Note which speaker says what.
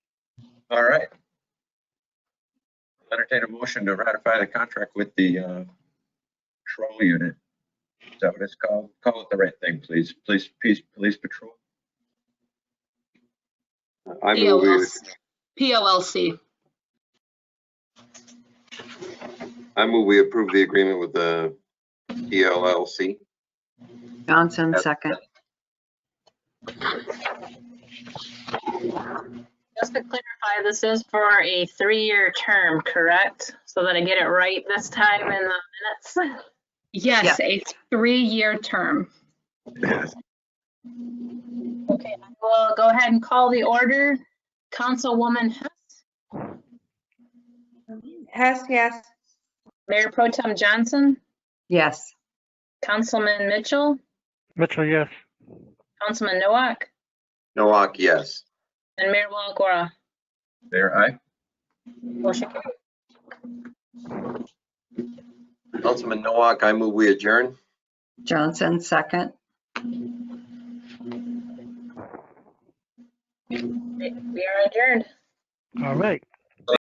Speaker 1: All right. I'll Entertain a motion to ratify the contract with the uh, patrol unit. Is that what it's called? Call it the right thing, please. Police, peace, police patrol.
Speaker 2: I move we,
Speaker 3: POLC. POLC.
Speaker 2: I move we approve the agreement with the PLLC.
Speaker 4: Johnson, second.
Speaker 5: Just to clarify, this is for a three-year term, correct? So that I get it right this time in the minutes.
Speaker 3: Yes, a three-year term.
Speaker 5: Okay, I will go ahead and call the order. Councilwoman Hess,
Speaker 6: Hess, yes.
Speaker 5: Mayor Pro Tem Johnson,
Speaker 4: Yes.
Speaker 5: Councilman Mitchell,
Speaker 7: Mitchell, yes.
Speaker 5: Councilman Nowak,
Speaker 2: Noak, yes.
Speaker 5: and Mayor Walagora.
Speaker 1: There, aye.
Speaker 5: Motion carries.
Speaker 2: Councilman Noak, I move we adjourn.
Speaker 4: Johnson, second.
Speaker 5: We are adjourned.
Speaker 7: All right.